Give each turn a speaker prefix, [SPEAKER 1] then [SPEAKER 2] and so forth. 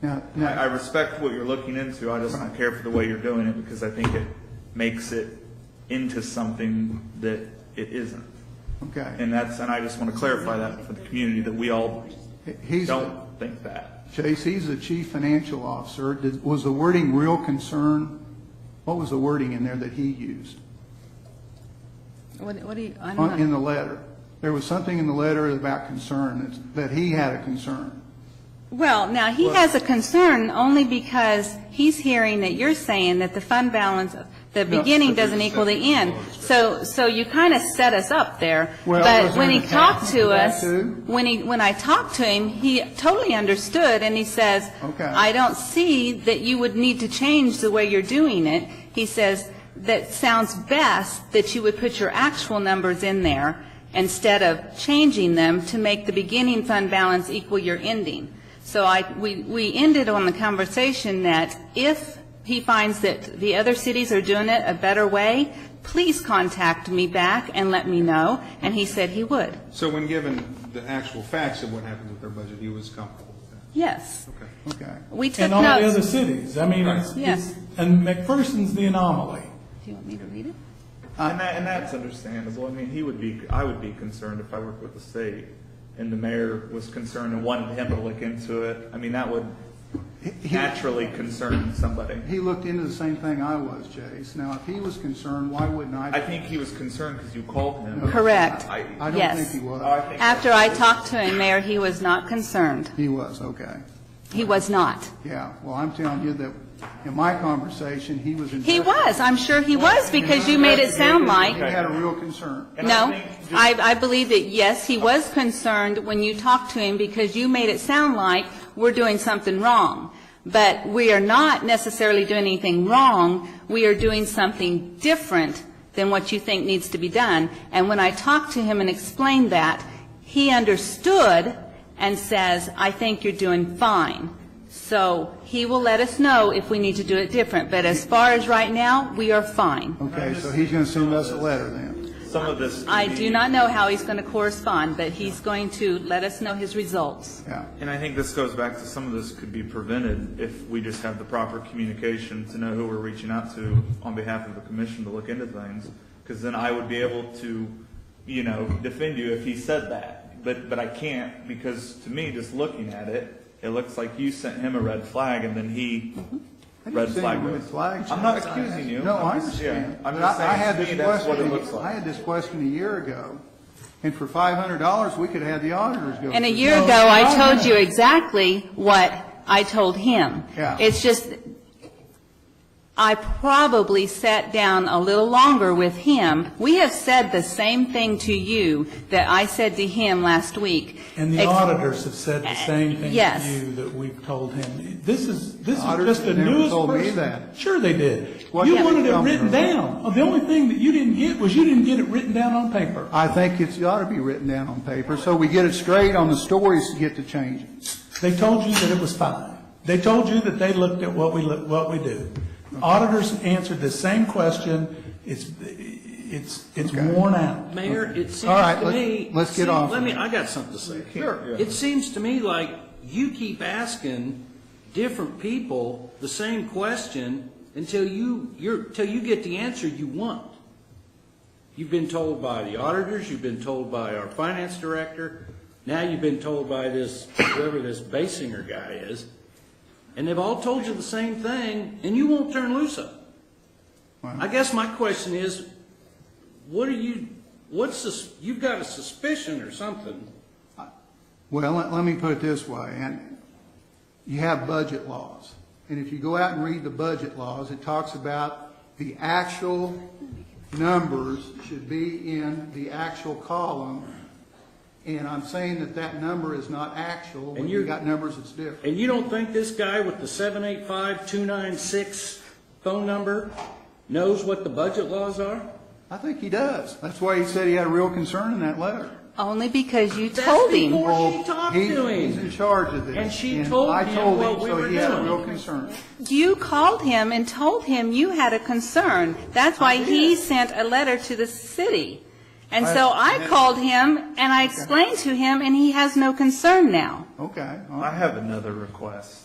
[SPEAKER 1] Now,
[SPEAKER 2] I, I
[SPEAKER 1] now,
[SPEAKER 2] respect what you're looking into, I just don't care for the way you're doing it, because I think it makes it into something that it isn't.
[SPEAKER 1] okay.
[SPEAKER 2] And that's, and I just want to clarify that for the community, that we all
[SPEAKER 1] He's,
[SPEAKER 2] don't think that.
[SPEAKER 1] Chase, he's the chief financial officer. Did- Was the wording real concern? What was the wording in there that he used
[SPEAKER 3] What, what do you, I'm
[SPEAKER 1] on- in
[SPEAKER 3] not,
[SPEAKER 1] the letter? There was something in the letter about concern, that's- that he had a concern.
[SPEAKER 3] well, now, he has a concern only because he's hearing that you're saying that the fund balance, the
[SPEAKER 1] No,
[SPEAKER 3] beginning
[SPEAKER 1] but
[SPEAKER 3] doesn't
[SPEAKER 1] there's
[SPEAKER 3] equal the end. So, so you kind of set us up there.
[SPEAKER 1] Well,
[SPEAKER 3] But
[SPEAKER 1] was
[SPEAKER 3] when
[SPEAKER 1] there
[SPEAKER 3] he
[SPEAKER 1] an
[SPEAKER 3] talked
[SPEAKER 1] attachment
[SPEAKER 3] to
[SPEAKER 1] to that
[SPEAKER 3] us,
[SPEAKER 1] too?
[SPEAKER 3] when he, when I talked to him, he totally understood, and he says,
[SPEAKER 1] Okay.
[SPEAKER 3] I don't see that you would need to change the way you're doing it. He says, that sounds best that you would put your actual numbers in there instead of changing them to make the beginning fund balance equal your ending. So I, we, we ended on the conversation that if he finds that the other cities are doing it a better way, please contact me back and let me know, and he said he would.
[SPEAKER 4] So when given the actual facts of what happens with their budget, he was comfortable with that?
[SPEAKER 3] Yes.
[SPEAKER 4] Okay.
[SPEAKER 1] Okay.
[SPEAKER 3] We took
[SPEAKER 5] And all the other
[SPEAKER 3] notes.
[SPEAKER 5] cities, I mean, it's,
[SPEAKER 3] Yes.
[SPEAKER 5] it's- and McPherson's the anomaly.
[SPEAKER 3] Do you want me to read it?
[SPEAKER 1] Uh,
[SPEAKER 2] And that, and that's understandable, I mean, he would be, I would be concerned if I worked with the state, and the mayor was concerned and wanted him to look into it, I mean, that would
[SPEAKER 1] he-
[SPEAKER 2] naturally concern somebody.
[SPEAKER 1] He looked into the same thing I was, Chase. Now, if he was concerned, why wouldn't
[SPEAKER 2] I
[SPEAKER 1] I?
[SPEAKER 2] think he was concerned because you called him.
[SPEAKER 3] Correct.
[SPEAKER 2] I-
[SPEAKER 1] I don't
[SPEAKER 3] Yes.
[SPEAKER 1] think he
[SPEAKER 2] I
[SPEAKER 1] was.
[SPEAKER 2] think-
[SPEAKER 3] After I talked to him, Mayor, he was not concerned.
[SPEAKER 1] He was, okay.
[SPEAKER 3] He was not.
[SPEAKER 1] Yeah, well, I'm telling you that in my conversation, he was.
[SPEAKER 3] He
[SPEAKER 1] invested-
[SPEAKER 3] was, I'm sure he was, because you made it sound
[SPEAKER 1] He
[SPEAKER 3] like,
[SPEAKER 1] had a real concern.
[SPEAKER 2] And I
[SPEAKER 3] no,
[SPEAKER 2] think just-
[SPEAKER 3] I, I believe that, yes, he was concerned when you talked to him, because you made it sound like we're doing something wrong. But we are not necessarily doing anything wrong, we are doing something different than what you think needs to be done. And when I talked to him and explained that, he understood and says, I think you're doing fine. So he will let us know if we need to do it different, but as far as right now, we are fine.
[SPEAKER 1] Okay, so he's going to send us a letter then.
[SPEAKER 2] Some of this.
[SPEAKER 3] I
[SPEAKER 2] could
[SPEAKER 3] do
[SPEAKER 2] be-
[SPEAKER 3] not know how he's going to correspond, but he's going to let us know his results.
[SPEAKER 1] Yeah.
[SPEAKER 2] And I think this goes back to some of this could be prevented if we just have the proper communication to know who we're reaching out to on behalf of the commission to look into things. Because then I would be able to, you know, defend you if he said that. But, but I can't because to me, just looking at it, it looks like you sent him a red flag and then he
[SPEAKER 1] I didn't
[SPEAKER 2] red
[SPEAKER 1] send
[SPEAKER 2] flag.
[SPEAKER 1] him a red
[SPEAKER 2] goes.
[SPEAKER 1] flag,
[SPEAKER 2] I'm not
[SPEAKER 1] Chase.
[SPEAKER 2] accusing you.
[SPEAKER 1] No, I
[SPEAKER 2] I'm just- yeah,
[SPEAKER 1] understand.
[SPEAKER 2] I'm
[SPEAKER 1] But
[SPEAKER 2] just
[SPEAKER 1] I- I
[SPEAKER 2] saying,
[SPEAKER 1] had
[SPEAKER 2] to
[SPEAKER 1] this
[SPEAKER 2] me, that's what it
[SPEAKER 1] question-
[SPEAKER 2] looks like.
[SPEAKER 1] I had this question a year ago, and for $500, we could have had the auditors go.
[SPEAKER 3] And a
[SPEAKER 1] through.
[SPEAKER 3] year ago, I told you exactly what I told him.
[SPEAKER 1] Yeah.
[SPEAKER 3] It's just, I probably sat down a little longer with him. We have said the same thing to you that I said to him last week.
[SPEAKER 5] And the
[SPEAKER 3] Ex-
[SPEAKER 5] auditors have said the same thing
[SPEAKER 3] Yes.
[SPEAKER 5] to you that we've told him. This is, this is
[SPEAKER 1] Auditors
[SPEAKER 5] just the
[SPEAKER 1] never
[SPEAKER 5] newest
[SPEAKER 1] told me
[SPEAKER 5] person.
[SPEAKER 1] that.
[SPEAKER 5] Sure they did.
[SPEAKER 1] What
[SPEAKER 5] You
[SPEAKER 1] did
[SPEAKER 5] wanted
[SPEAKER 1] they
[SPEAKER 5] it
[SPEAKER 1] tell me?
[SPEAKER 5] written down. Oh, The only thing that you didn't get was you didn't get it written down on paper.
[SPEAKER 1] I think it's, it ought to be written down on paper, so we get it straight on the stories to get to change it.
[SPEAKER 5] They told you that it was fine. They told you that they looked at what we, look- what we do. Auditors answered the same question. It's, it's, it's worn out.
[SPEAKER 6] Mayor, it seems
[SPEAKER 1] All right,
[SPEAKER 6] to
[SPEAKER 1] let's-
[SPEAKER 6] me.
[SPEAKER 1] let's get
[SPEAKER 6] see,
[SPEAKER 1] off
[SPEAKER 6] Let
[SPEAKER 1] of
[SPEAKER 6] me,
[SPEAKER 1] it.
[SPEAKER 6] I got something to say.
[SPEAKER 2] Sure.
[SPEAKER 6] It seems to me like you keep asking different people the same question until you, you're, till you get the answer you want. You've been told by the auditors, you've been told by our finance director, now you've been told by this, whoever this Basinger guy is, and they've all told you the same thing, and you won't turn loose of it. I guess my question is, what are you, what's this, you've got a suspicion or something.
[SPEAKER 1] Well, let, let me put it this way, and you have budget laws. And if you go out and read the budget laws, it talks about the actual numbers should be in the actual column. And I'm saying that that number is not actual, when
[SPEAKER 6] And
[SPEAKER 1] you
[SPEAKER 6] you're-
[SPEAKER 1] got numbers that's different.
[SPEAKER 6] And you don't think this guy with the seven eight five two nine six phone number knows what the budget laws are?
[SPEAKER 1] I think he does. That's why he said he had a real concern in that letter.
[SPEAKER 3] Only because you
[SPEAKER 6] That's
[SPEAKER 3] told him.
[SPEAKER 6] before
[SPEAKER 1] Well,
[SPEAKER 6] she talked
[SPEAKER 1] he-
[SPEAKER 6] to him.
[SPEAKER 1] He's in charge of this.
[SPEAKER 6] And she told
[SPEAKER 1] I
[SPEAKER 6] him
[SPEAKER 1] told
[SPEAKER 6] what we
[SPEAKER 1] so
[SPEAKER 6] were
[SPEAKER 1] he had a
[SPEAKER 6] doing.
[SPEAKER 1] real concern.
[SPEAKER 3] You called him and told him you had a concern. That's why he sent a letter to the city. And so I called him and I explained to him, and he has no concern now.
[SPEAKER 1] Okay, all right.
[SPEAKER 2] I have another request.